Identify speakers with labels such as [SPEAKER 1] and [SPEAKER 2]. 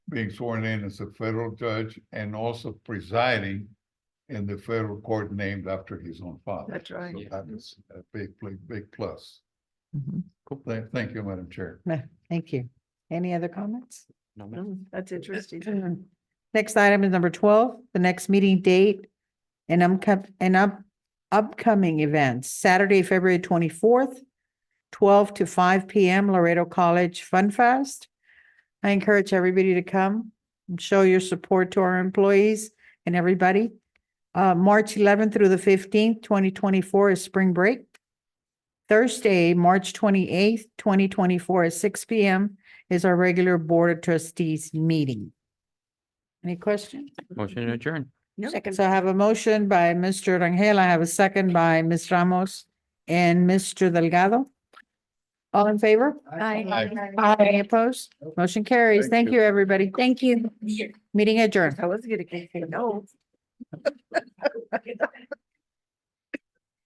[SPEAKER 1] being sworn in as a federal judge and also presiding in the federal court named after his own father.
[SPEAKER 2] That's right.
[SPEAKER 1] So That is a big, big, big plus.
[SPEAKER 3] Mhm.
[SPEAKER 2] Mm-hmm.
[SPEAKER 1] Thank, thank you, Madam Chair.
[SPEAKER 3] Thank you. Any other comments?
[SPEAKER 4] No, ma'am.
[SPEAKER 2] Mm, That's interesting.
[SPEAKER 3] Next item is number twelve, the next meeting date and upcom- and up- upcoming events, Saturday, February twenty-fourth, twelve to five P M, Laredo College Fun Fest. I encourage everybody to come and show your support to our employees and everybody. Uh, March eleventh through the fifteenth, twenty twenty-four is spring break. Thursday, March twenty-eighth, twenty twenty-four at six P M is our regular Board of Trustees meeting. Any question?
[SPEAKER 4] Motion to adjourn.
[SPEAKER 2] Second.
[SPEAKER 3] So I have a motion by Mr. Rangel. I have a second by Ms. Ramos and Mr. Delgado. All in favor?
[SPEAKER 1] Aye.
[SPEAKER 3] Any opposed? Motion carries.
[SPEAKER 1] Thank
[SPEAKER 3] Thank
[SPEAKER 1] you.
[SPEAKER 3] you, everybody. Thank you. Meeting adjourned.
[SPEAKER 2] I was gonna say no.